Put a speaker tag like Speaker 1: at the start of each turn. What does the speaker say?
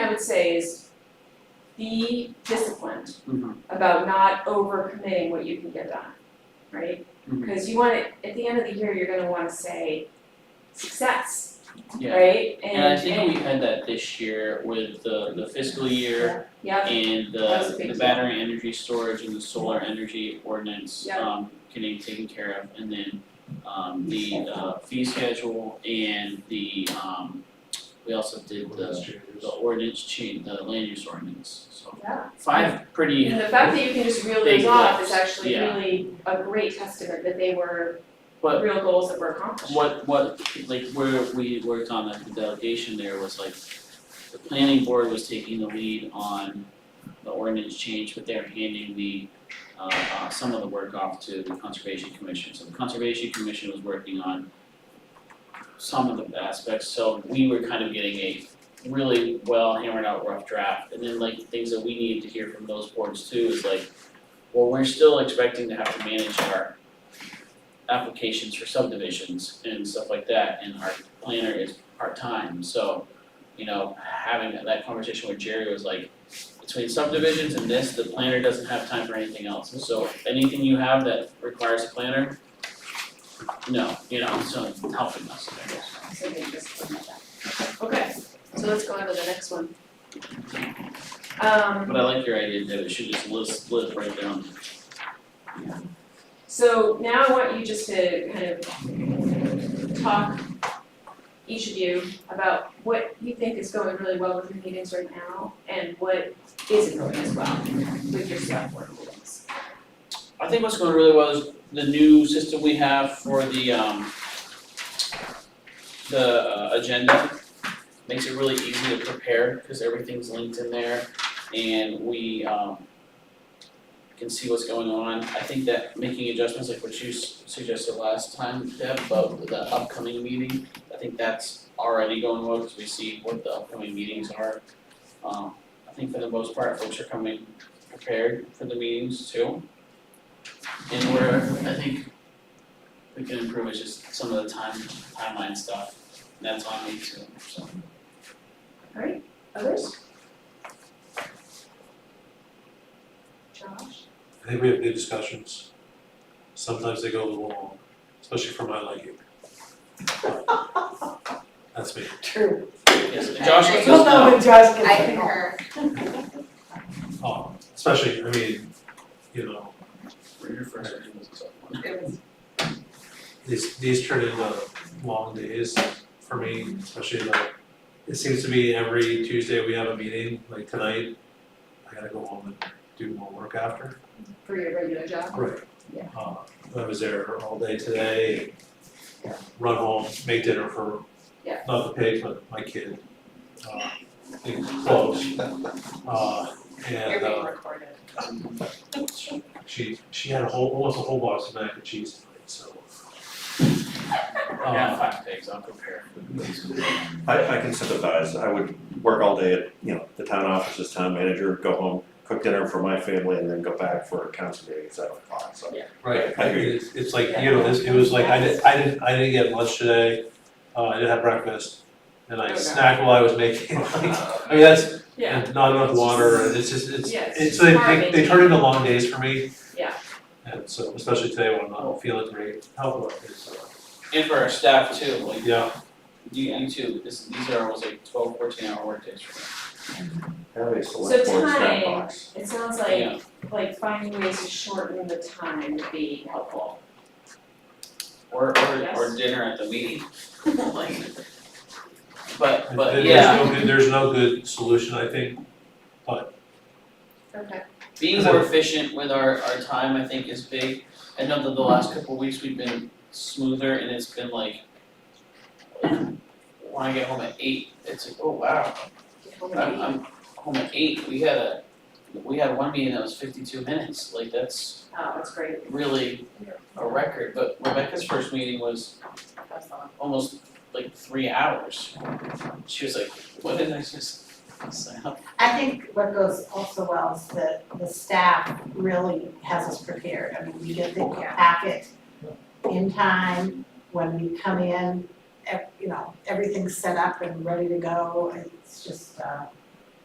Speaker 1: say is be disciplined
Speaker 2: Mhm.
Speaker 1: about not overcommitting what you can get done, right?
Speaker 2: Mhm.
Speaker 3: Mm-hmm.
Speaker 1: Because you want to, at the end of the year, you're gonna wanna say success,
Speaker 3: Yeah,
Speaker 1: right?
Speaker 3: and I think we had that this year with the the fiscal year
Speaker 1: Yep,
Speaker 3: and
Speaker 1: That was a
Speaker 3: the
Speaker 1: big
Speaker 3: the
Speaker 1: deal.
Speaker 3: battery energy storage and the solar energy ordinance
Speaker 1: Yeah.
Speaker 3: um getting taken care of and then um the uh fee schedule and the um we also did the the ordinance change, the land use ordinance, so
Speaker 1: yeah.
Speaker 3: five pretty
Speaker 1: And the fact that you can just reel these
Speaker 3: Big
Speaker 1: off is
Speaker 3: lifts,
Speaker 1: actually
Speaker 3: yeah.
Speaker 1: really a great testament that they were
Speaker 3: But-
Speaker 1: real goals that were accomplished.
Speaker 3: What what like where we worked on the delegation there was like the planning board was taking the lead on the ordinance change, but they're handing the uh uh some of the work off to the conservation commission, so the conservation commission was working on some of the aspects, so we were kind of getting a really well hammered out rough draft, and then like things that we needed to hear from those boards too is like well, we're still expecting to have to manage our applications for subdivisions and stuff like that, and our planner is part-time, so, you know, having that- that conversation with Jerry was like, between subdivisions and this, the planner doesn't have time for anything else, so anything you have that requires a planner, no, you know, so it's helping us there.
Speaker 1: So they just look at that. Okay, so let's go on to the next one. Um.
Speaker 3: But I like your idea that it should just list, live right there on
Speaker 1: So now I want you just to kind of talk, each of you, about what you think is going really well with your meetings right now and what isn't going as well with your select board meetings.
Speaker 3: I think what's going really well is the new system we have for the um the uh, agenda makes it really easy to prepare because everything's linked in there and we um can see what's going on. I think that making adjustments like what you s- suggested last time, Deb, about the upcoming meeting, I think that's already going well because we see what the upcoming meetings are. Um I think for the most part, folks are coming prepared for the meetings too. And where I think we can improve is just some of the time, timeline stuff, and that's on me too, so.
Speaker 1: Others? Josh?
Speaker 4: I think we have good discussions. Sometimes they go a little long, especially for my liking. That's me.
Speaker 5: True.
Speaker 3: Yes, and Josh lets us
Speaker 5: You'll know
Speaker 3: know,
Speaker 5: when Josh gets
Speaker 6: I
Speaker 5: back home.
Speaker 6: concur.
Speaker 4: Oh, especially, I mean, you know,
Speaker 3: we're here first, and it's up one.
Speaker 6: It was
Speaker 4: these these turn into long days for me, especially like it seems to be every Tuesday we have a meeting, like tonight. I gotta go home and do more work after.
Speaker 1: For your regular job?
Speaker 4: Right.
Speaker 1: Yeah.
Speaker 4: Uh, I was there all day today, run home, make dinner for,
Speaker 1: Yeah.
Speaker 4: not the pig, but my kid. Uh, and close. Uh, and
Speaker 6: being
Speaker 4: uh,
Speaker 6: recorded.
Speaker 4: she, she had a whole, almost a whole box of mac and cheese tonight, so.
Speaker 3: I got
Speaker 4: Uh,
Speaker 3: Oh, five pigs, I'll prepare.
Speaker 7: I, I can sympathize, I would work all day at, you know, the town office as town manager, go home, cook dinner for my family, and then go back for a council meeting at seven o'clock, so.
Speaker 4: Right,
Speaker 7: I hear you.
Speaker 4: it's, it's like, you know, this, it was like, I didn't, I didn't, I didn't get lunch today, uh, I didn't have breakfast. And I
Speaker 1: Okay.
Speaker 4: snacked while I was making, I mean, that's,
Speaker 1: Yeah,
Speaker 4: and not enough water, and it's just, it's,
Speaker 1: Yeah, it's
Speaker 4: it's, they, they, they
Speaker 1: harming.
Speaker 4: turn into long days for me.
Speaker 1: Yeah.
Speaker 4: And so, especially today when I'm not feeling great, health wise, so,
Speaker 3: And for our staff too, like,
Speaker 4: yeah,
Speaker 3: you, you too, this, these are almost like twelve, fourteen hour workdays for them.
Speaker 7: Have a
Speaker 1: select
Speaker 7: select
Speaker 1: So board
Speaker 7: board
Speaker 1: snack time.
Speaker 7: snack
Speaker 1: box.
Speaker 7: box.
Speaker 1: it sounds like, like finding ways to shorten the time would be helpful.
Speaker 3: Or, or,
Speaker 1: Yes.
Speaker 3: or dinner at the meeting, like. But,
Speaker 4: And
Speaker 3: but
Speaker 4: there's
Speaker 3: yeah,
Speaker 4: no good, there's no good solution, I think,
Speaker 1: Okay.
Speaker 3: being more efficient with our, our time, I think, is big. I know that the last couple of weeks, we've been smoother and it's been like, when I get home at eight, it's like, oh wow, I'm, I'm home at eight, we had a, we had one meeting that was fifty-two minutes, like that's
Speaker 1: Oh, that's great.
Speaker 3: really a record, but Rebecca's first meeting was
Speaker 6: That's the one.
Speaker 3: almost like three hours. She was like, what did I just sign up?
Speaker 5: I think what goes also well is that the staff really has us prepared. I mean, we get the
Speaker 6: Yeah.
Speaker 5: packet in time, when we come in, ev- you know, everything's set up and ready to go. It's just, uh,